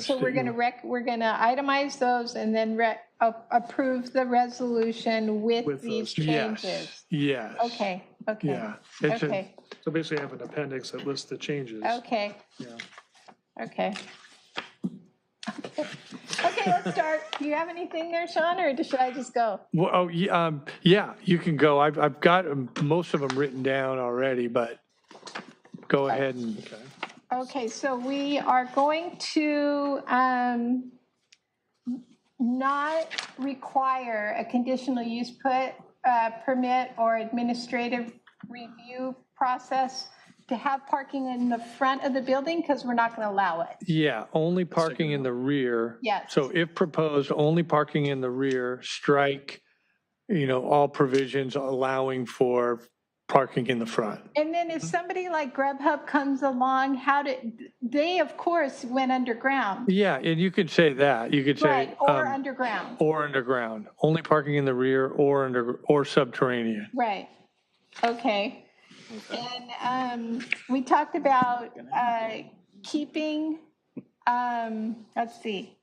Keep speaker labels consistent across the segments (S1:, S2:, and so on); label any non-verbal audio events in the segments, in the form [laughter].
S1: So we're going to rec, we're going to itemize those and then re, a- approve the resolution with
S2: With
S1: these
S2: those
S1: changes.
S2: Yes, yes.
S1: Okay, okay,
S2: Yeah. It's just-
S1: okay,
S2: So basically I have an appendix that lists the changes.
S1: okay,
S2: Yeah.
S1: okay. [laughs] Okay, let's start. Do you have anything there, Sean, or should I just go?
S2: Well, oh, ye- um, yeah, you can go. I've, I've got um, most of them written down already, but go ahead and,
S1: Okay, so we are going to um, not require a conditional use put, uh, permit or administrative review process to have parking in the front of the building because we're not going to allow it.
S2: yeah, only parking in the rear.
S1: Yes.
S2: So if proposed, only parking in the rear, strike, you know, all provisions allowing for parking in the front.
S1: And then if somebody like Grubhub comes along, how did, they of course went underground.
S2: Yeah, and you could say that. You could say,
S1: Right, or
S2: um,
S1: underground,
S2: or underground, only parking in the rear or under, or subterranean.
S1: right. Okay. And um, we talked about uh, keeping, um, let's see,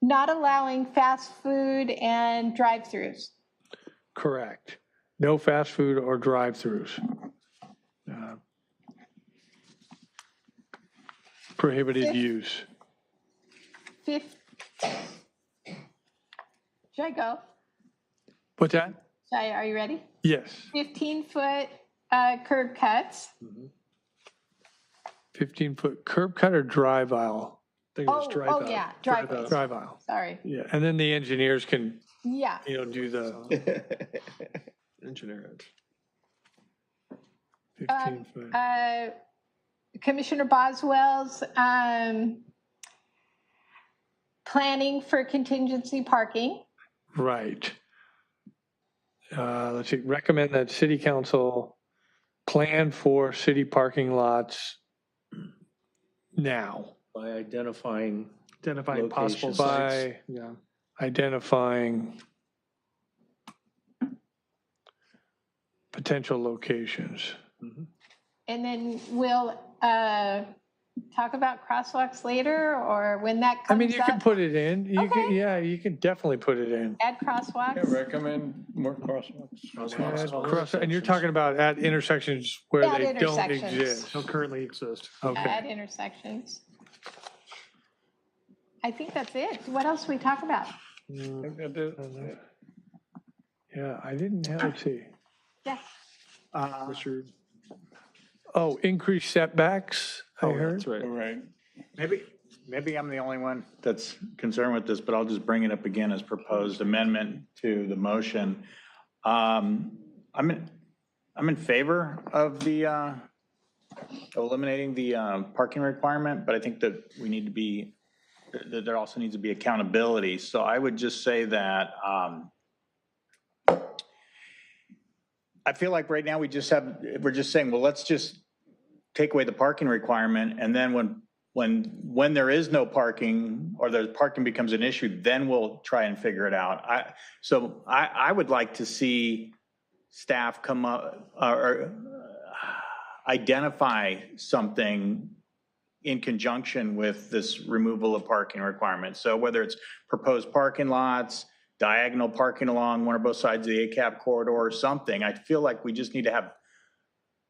S1: not allowing fast food and drive-throughs.
S2: Correct. No fast food or drive-throughs. Uh, Prohibited use.
S1: Fif- Should I go?
S2: What's that?
S1: Should I, are you ready?
S2: Yes,
S1: 15-foot uh, curb cuts.
S2: 15-foot curb cut or drive aisle?
S3: think it
S1: Oh,
S3: was drive
S1: oh,
S3: out.
S1: yeah, driveways,
S2: Drive aisle,
S1: sorry.
S2: yeah. And then the engineers can,
S1: Yeah,
S2: you know, do the
S1: [laughs]
S3: Engineer it.
S2: 15-foot.
S1: uh, Commissioner Boswell's um, planning for contingency parking.
S2: Right. Uh, Let's see, recommend that city council plan for city parking lots now
S4: by identifying
S3: Identifying possible
S4: Locations.
S3: sites.
S2: by
S3: Yeah.
S2: identifying potential locations.
S1: And then we'll uh, talk about crosswalks later or when that
S2: I mean,
S1: comes
S2: you can
S1: up,
S2: put it in, you can,
S1: Okay.
S2: yeah, you can definitely put it in.
S1: add crosswalks.
S4: recommend more crosswalks.
S2: Add cross- And you're talking about at intersections where
S1: At
S2: they don't
S1: intersections.
S2: exist.
S3: Don't currently exist.
S2: Okay.
S1: At intersections. I think that's it. What else we talk about?
S2: Mm-hmm. Yeah, I didn't have, let's see.
S1: Yeah.
S2: Uh,
S3: What's your-
S2: Oh, increased setbacks, I
S3: Oh,
S2: heard.
S3: that's right.
S4: Right.
S5: Maybe, maybe I'm the only one that's concerned with this, but I'll just bring it up again as proposed amendment to the motion. Um, I'm, in- I'm in favor of the, uh, eliminating the uh, parking requirement, but I think that we need to be, that there also needs to be accountability. So I would just say that um, I feel like right now we just have, we're just saying, well, let's just take away the parking requirement, and then when, when, when there is no parking, or the parking becomes an issue, then we'll try and figure it out. I, so I, I would like to see staff come up, or- or uh, identify something in conjunction with this removal of parking requirements. So whether it's proposed parking lots, diagonal parking along one or both sides of the ACAP corridor or something, I feel like we just need to have,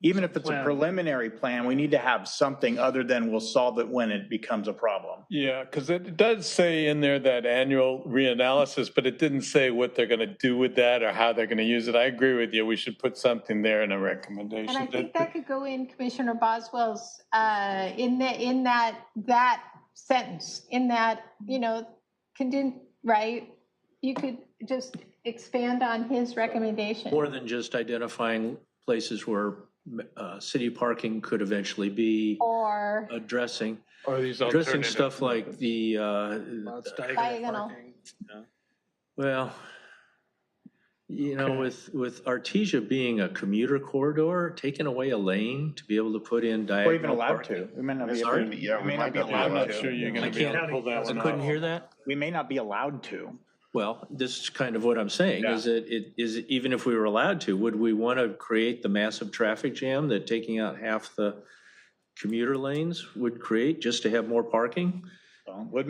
S5: even if it's a
S3: Plan.
S5: preliminary plan, we need to have something other than we'll solve it when it becomes a problem.
S6: Yeah, because it does say in there that annual reanalysis, but it didn't say what they're going to do with that or how they're going to use it. I agree with you. We should put something there in a recommendation.
S1: And I think that could go in Commissioner Boswell's, uh, in the, in that, that sentence, in that, you know, conden, right? You could just expand on his recommendation.
S4: More than just identifying places where uh, city parking could eventually be
S1: Or
S4: addressing,
S6: Or these
S4: addressing
S6: alternative.
S4: stuff like the, uh,
S3: Lots
S1: Diagonal.
S3: diagonal parking.
S4: well, you know, with, with Artesia being a commuter corridor, taking away a lane to be able to put in diagonal
S5: We're even allowed
S4: parking.
S5: to. We may not be,
S4: Sorry?
S5: able- we may not be
S6: I'm
S5: allowed
S6: not sure
S5: to.
S6: you're
S4: I
S6: going to be able to pull that one
S4: can't, I
S6: off.
S4: couldn't hear that?
S5: We may not be allowed to.
S4: Well, this is kind of what I'm saying, is that it, is, even if we were allowed to, would we want to create the massive traffic jam that taking out half the commuter lanes would create just to have more parking?
S5: So, Would